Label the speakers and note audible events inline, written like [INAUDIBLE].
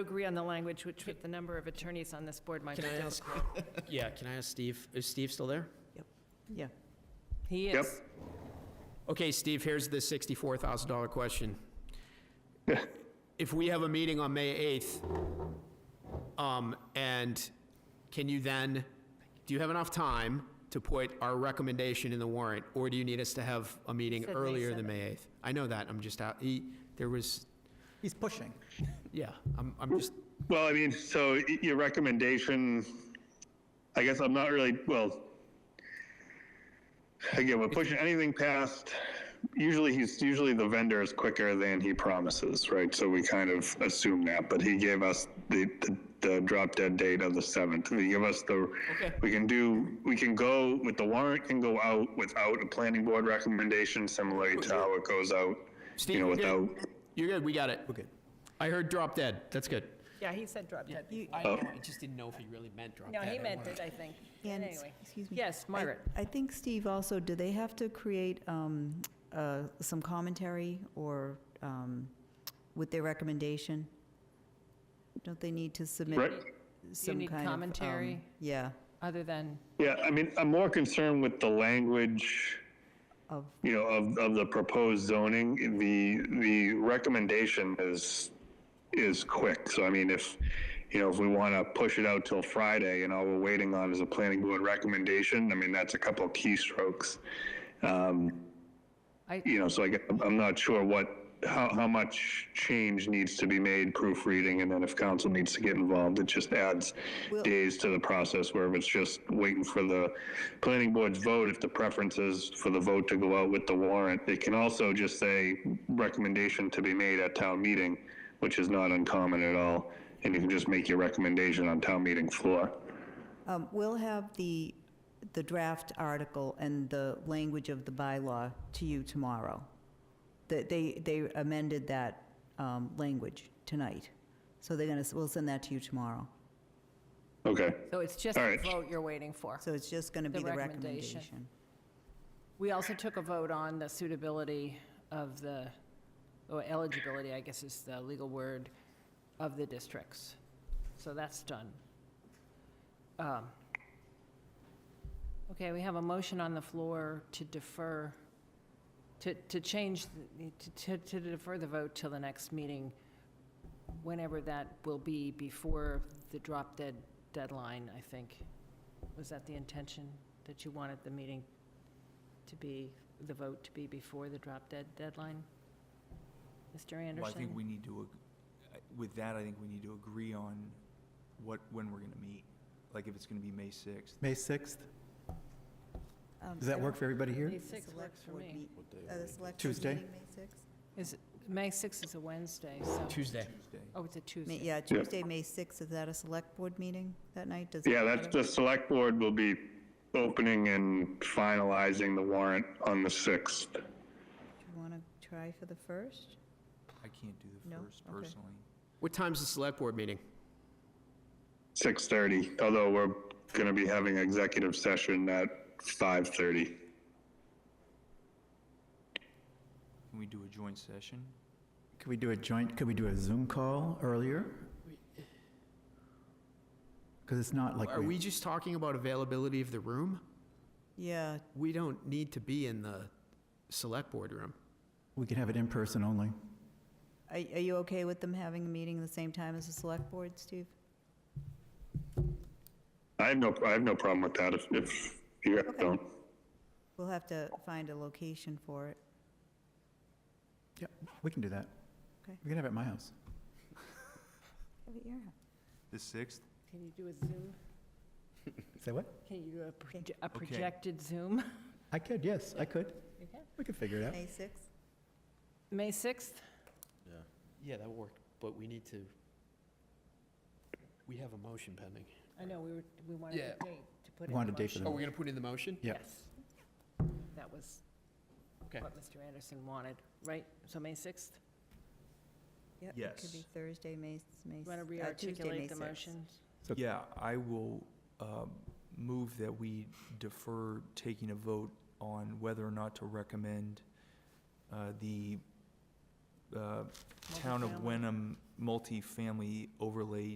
Speaker 1: agree on the language, which with the number of attorneys on this board might be
Speaker 2: Can I ask,
Speaker 1: difficult.
Speaker 2: yeah, can I ask Steve, is Steve still there?
Speaker 1: Yeah. He
Speaker 3: Yep.
Speaker 1: is.
Speaker 2: Okay, Steve, here's the $64,000 [LAUGHS] question. If we have a meeting on May 8th, um, and can you then, do you have enough time to put our recommendation in the warrant? Or do you need us to have a meeting
Speaker 1: said May
Speaker 2: earlier than May 8th? I know that, I'm just out, he, there was,
Speaker 4: He's pushing.
Speaker 2: yeah, I'm, I'm just,
Speaker 3: Well, I mean, so y- your recommendation, I guess I'm not really, well, again, we're pushing anything past, usually he's, usually the vendor is quicker than he promises, right? So we kind of assume that, but he gave us the, the, the drop dead date of the 7th. He gave us the,
Speaker 2: Okay.
Speaker 3: we can do, we can go with the warrant can go out without a planning board recommendation, similar to how it goes out,
Speaker 2: Steve,
Speaker 3: you know,
Speaker 2: you're good.
Speaker 3: without,
Speaker 2: You're good, we got it.
Speaker 4: We're good.
Speaker 2: I heard drop dead, that's good.
Speaker 1: Yeah, he said drop dead.
Speaker 2: I
Speaker 3: Oh.
Speaker 2: just didn't know if he really meant drop
Speaker 1: No, he meant it, I think.
Speaker 5: And,
Speaker 1: Anyway.
Speaker 5: excuse me.
Speaker 1: Yes,
Speaker 5: I-
Speaker 1: Margaret.
Speaker 5: I think, Steve, also, do they have to create um, uh, some commentary or um, with their recommendation? Don't they need to submit
Speaker 3: right?
Speaker 5: some kind
Speaker 1: need
Speaker 5: of... um,
Speaker 1: commentary?
Speaker 5: Yeah,
Speaker 1: Other than,
Speaker 3: Yeah, I mean, I'm more concerned with the language,
Speaker 5: of,
Speaker 3: you know, of, of the proposed zoning. The, the recommendation is, is quick. So I mean, if, you know, if we want to push it out till Friday and all we're waiting on is a planning board recommendation, I mean, that's a couple of keystrokes. Um,
Speaker 1: I,
Speaker 3: You know, so I, get- I'm- I'm not sure what, how, how much change needs to be made proofreading. And then if council needs to get involved, it just adds
Speaker 5: Will-
Speaker 3: days to the process where if it's just waiting for the planning board's vote, if the preference is for the vote to go out with the warrant, they can also just say recommendation to be made at town meeting, which is not uncommon at all. And you can just make your recommendation on town meeting floor.
Speaker 5: um, we'll have the, the draft article and the language of the bylaw to you tomorrow. That They, they amended that um, language tonight, so they're going to, we'll send that to you tomorrow.
Speaker 3: Okay.
Speaker 1: so it's just
Speaker 3: All
Speaker 1: the
Speaker 3: right.
Speaker 1: vote you're waiting for.
Speaker 5: So it's just going to
Speaker 1: The
Speaker 5: be the
Speaker 1: recommendation.
Speaker 5: recommendation.
Speaker 1: We also took a vote on the suitability of the, or eligibility, I guess is the legal word, of the districts. So that's done. Um, Okay, we have a motion on the floor to defer, to, to change, the- to, to defer the vote till the next meeting, whenever that will be, before the drop dead deadline, I think. Was that the intention, that you wanted the meeting to be, the vote to be before the drop dead deadline? Mr.
Speaker 6: Well, I think
Speaker 1: Anderson?
Speaker 6: we need to, ag- I- with that, I think we need to agree on what, when we're gonna meet. Like, if it's gonna be May sixth.
Speaker 4: May 6th? Does that work for everybody here?
Speaker 1: May 6 works for me.
Speaker 4: Tuesday?
Speaker 1: Is, it- May 6 is a Wednesday, so,
Speaker 2: Tuesday.
Speaker 6: Tuesday.
Speaker 1: oh, it's a Tuesday.
Speaker 5: Yeah, Tuesday, May 6th, is that a select board meeting that night? Does it
Speaker 3: Yeah, that's,
Speaker 5: matter?
Speaker 3: the select board will be opening and finalizing the warrant on the 6th.
Speaker 5: Do you want to try for the first?
Speaker 6: I can't do the
Speaker 5: No?
Speaker 6: first
Speaker 5: Okay.
Speaker 6: personally.
Speaker 2: What time's the select board meeting?
Speaker 3: 6:30, although we're going to be having executive session at 5:30.
Speaker 6: Can we do a joint session?
Speaker 4: Could we do a joint, could we do a Zoom call earlier? Because it's not like,
Speaker 2: Are
Speaker 4: we-
Speaker 2: we just talking about availability of the room?
Speaker 5: Yeah,
Speaker 2: We don't need to be in the select board room.
Speaker 4: we could have it in person only.
Speaker 5: are are you okay with them having a meeting the same time as the select board, Steve?
Speaker 3: I have no, I have no problem with that if, if you guys don't.
Speaker 5: We'll have to find a location for it.
Speaker 4: Yeah, we can do that.
Speaker 5: Okay.
Speaker 4: We can have it at my house.
Speaker 5: Have it your house.
Speaker 6: The sixth?
Speaker 1: Can you do a Zoom?
Speaker 4: Say what?
Speaker 1: Can you do a proje- a
Speaker 6: Okay.
Speaker 1: projected Zoom? [LAUGHS]
Speaker 4: I could, yes, I could.
Speaker 1: You can.
Speaker 4: We could figure it out.
Speaker 5: May 6th?
Speaker 1: May 6th?
Speaker 2: Yeah, that worked, but we need to, we have a motion pending.
Speaker 1: I know, we were, we wanted
Speaker 2: Yeah.
Speaker 1: a date to put in the motion.
Speaker 4: We wanted a date for the-
Speaker 2: Are we gonna put in the motion?
Speaker 4: Yeah.
Speaker 1: Yes. That was
Speaker 2: Okay.
Speaker 1: what Mr. Anderson wanted, right? So May 6th?
Speaker 5: Yep, It could be
Speaker 6: Yes.
Speaker 5: Thursday, May, May.
Speaker 1: You want to
Speaker 5: uh, Tuesday, May
Speaker 1: rearticulate the
Speaker 5: 6th.
Speaker 1: motion?
Speaker 4: So-
Speaker 6: Yeah, I will um, move that we defer taking a vote on whether or not to recommend uh, the uh, town of
Speaker 1: Multifamily.
Speaker 6: Wenham multifamily overlay